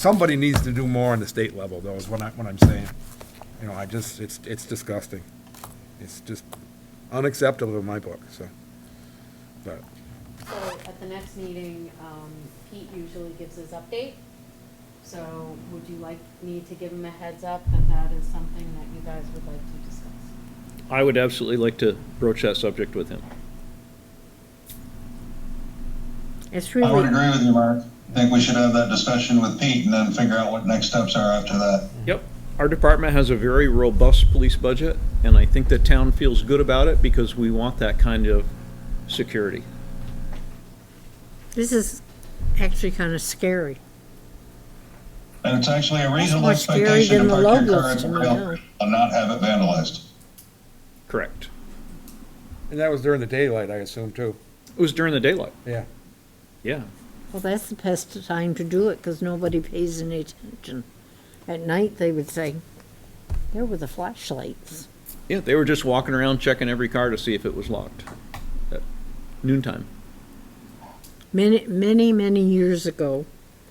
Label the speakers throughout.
Speaker 1: somebody needs to do more on the state level, though, is what I, what I'm saying. You know, I just, it's, it's disgusting. It's just unacceptable in my book, so. But,
Speaker 2: So at the next meeting, um, Pete usually gives his update. So would you like me to give him a heads up that that is something that you guys would like to discuss?
Speaker 3: I would absolutely like to broach that subject with him.
Speaker 4: It's
Speaker 5: Oh, I would
Speaker 4: really,
Speaker 5: agree with you, Mark. I think we should have that discussion with Pete and then figure out what next steps are after that.
Speaker 6: Mm-hmm.
Speaker 3: Yep. Our department has a very robust police budget, and I think the town feels good about it because we want that kind of security.
Speaker 4: this is actually kind of scary.
Speaker 5: And it's actually a reasonable
Speaker 4: more scary
Speaker 5: expectation to
Speaker 4: than the
Speaker 5: park your
Speaker 4: low
Speaker 5: car at
Speaker 4: list,
Speaker 5: the
Speaker 4: I
Speaker 5: rail
Speaker 4: know.
Speaker 5: and not have it vandalized.
Speaker 3: Correct.
Speaker 1: and that was during the daylight, I assume, too.
Speaker 3: It was during the daylight.
Speaker 1: Yeah.
Speaker 3: Yeah.
Speaker 4: Well, that's the best time to do it because nobody pays any attention. At night, they would say, there were the flashlights.
Speaker 3: Yeah, they were just walking around checking every car to see if it was locked at noontime.
Speaker 4: Many, many, many years ago,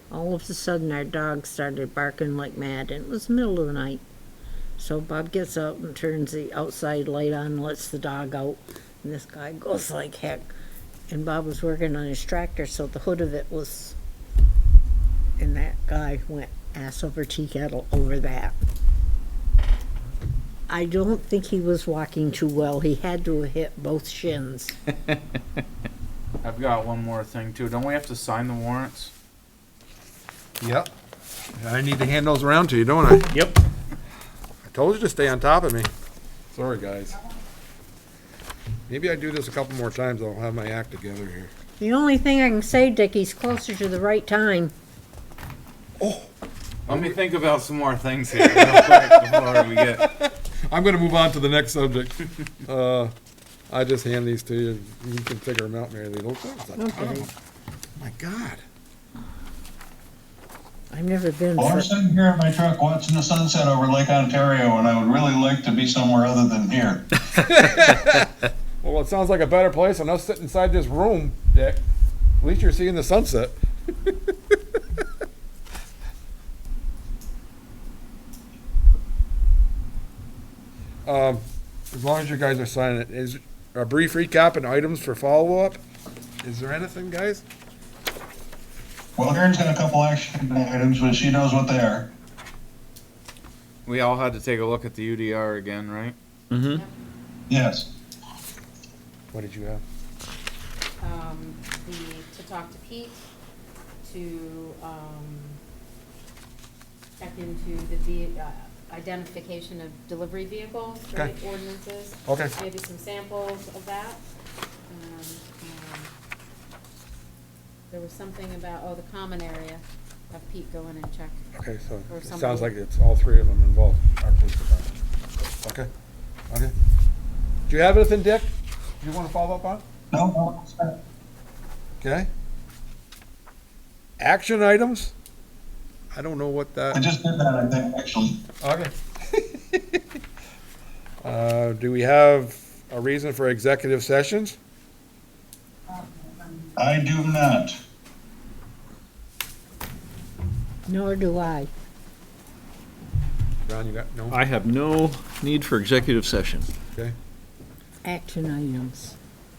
Speaker 4: all of a sudden, our dog started barking like mad, and it was the middle of the night. So Bob gets up and turns the outside light on, lets the dog out, and this guy goes like heck. And Bob was working on his tractor, so the hood of it was. And that guy went ass over tea kettle over that. I don't think he was walking too well. He had to have hit both shins.
Speaker 6: I've got one more thing too. Don't we have to sign the warrants?
Speaker 1: Yep. I need to hand those around to you, don't I?
Speaker 3: Yep.
Speaker 1: I told you to stay on top of me. Sorry, guys. Maybe I do this a couple more times, I'll have my act together here.
Speaker 4: The only thing I can say, Dick, he's closer to the right time.
Speaker 6: Let me think about some more things here real quick before we get.
Speaker 1: I'm gonna move on to the next subject. Uh, I just hand these to you, you can figure them out, Mary Lee. Those things are-
Speaker 4: Okay.
Speaker 1: My God.
Speaker 4: I've never been.
Speaker 5: Well, I'm
Speaker 4: for-
Speaker 5: sitting here in my truck watching the sunset over Lake Ontario and I would really like to be somewhere other than here.
Speaker 1: Well, it sounds like a better place than us sitting inside this room, Dick. At least you're seeing the sunset. Um, as long as you guys are signing it, is a brief recap and items for follow-up? Is there anything, guys?
Speaker 5: Well, Karen's got a couple action items, but she knows what they are.
Speaker 6: We all had to take a look at the UDR again, right?
Speaker 3: Mm-hmm.
Speaker 5: Yes.
Speaker 1: What did you have?
Speaker 2: Um, the, to talk to Pete, to, um, check into the ve- uh, identification of delivery vehicles,
Speaker 1: Okay.
Speaker 2: right, ordinances.
Speaker 1: Okay.
Speaker 2: Maybe some samples of that. Um, um, There was something about, oh, the common area, have Pete go in and check.
Speaker 1: Okay, so
Speaker 2: Or
Speaker 1: it sounds
Speaker 2: somebody.
Speaker 1: like it's all three of them involved, our police department. Okay, okay. Do you have anything, Dick, you want to follow up on?
Speaker 5: No, no, it's not.
Speaker 1: Okay. Action items? I don't know what
Speaker 5: I
Speaker 1: that,
Speaker 5: just did that, I think, actually.
Speaker 1: okay. Uh, do we have a reason for executive sessions?
Speaker 5: I do not.
Speaker 4: Nor do I.
Speaker 1: Ron, you got, no?
Speaker 3: I have no need for executive session.
Speaker 4: Action items.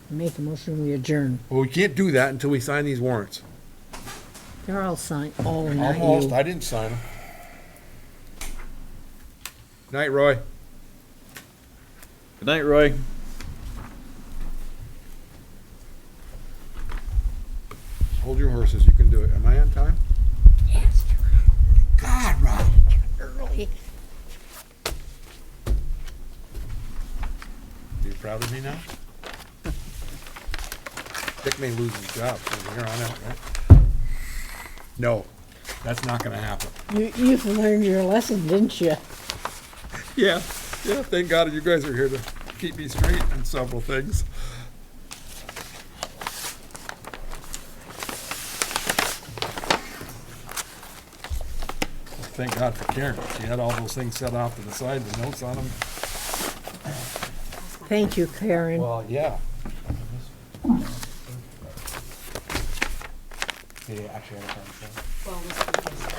Speaker 4: Make a motion, we adjourn.
Speaker 1: Well, we can't do that until we sign these warrants.
Speaker 4: They're all signed, oh, not
Speaker 1: Almost,
Speaker 4: you.
Speaker 1: I didn't sign them. Night, Roy.
Speaker 3: Good night, Roy.
Speaker 1: Hold your horses, you can do it. Am I on time? God, Rob.
Speaker 4: Early.
Speaker 1: Are you proud of me now? Dick may lose his job from here on out, right? No, that's not gonna happen.
Speaker 4: You, you've learned your lesson, didn't you?
Speaker 1: Yeah, yeah, thank God you guys are here to keep me straight on several things. Thank God for Karen. She had all those things set off to the side, the notes on them.
Speaker 4: Thank you, Karen.
Speaker 1: Well, yeah. Yeah, actually, I have a
Speaker 2: Well, this is-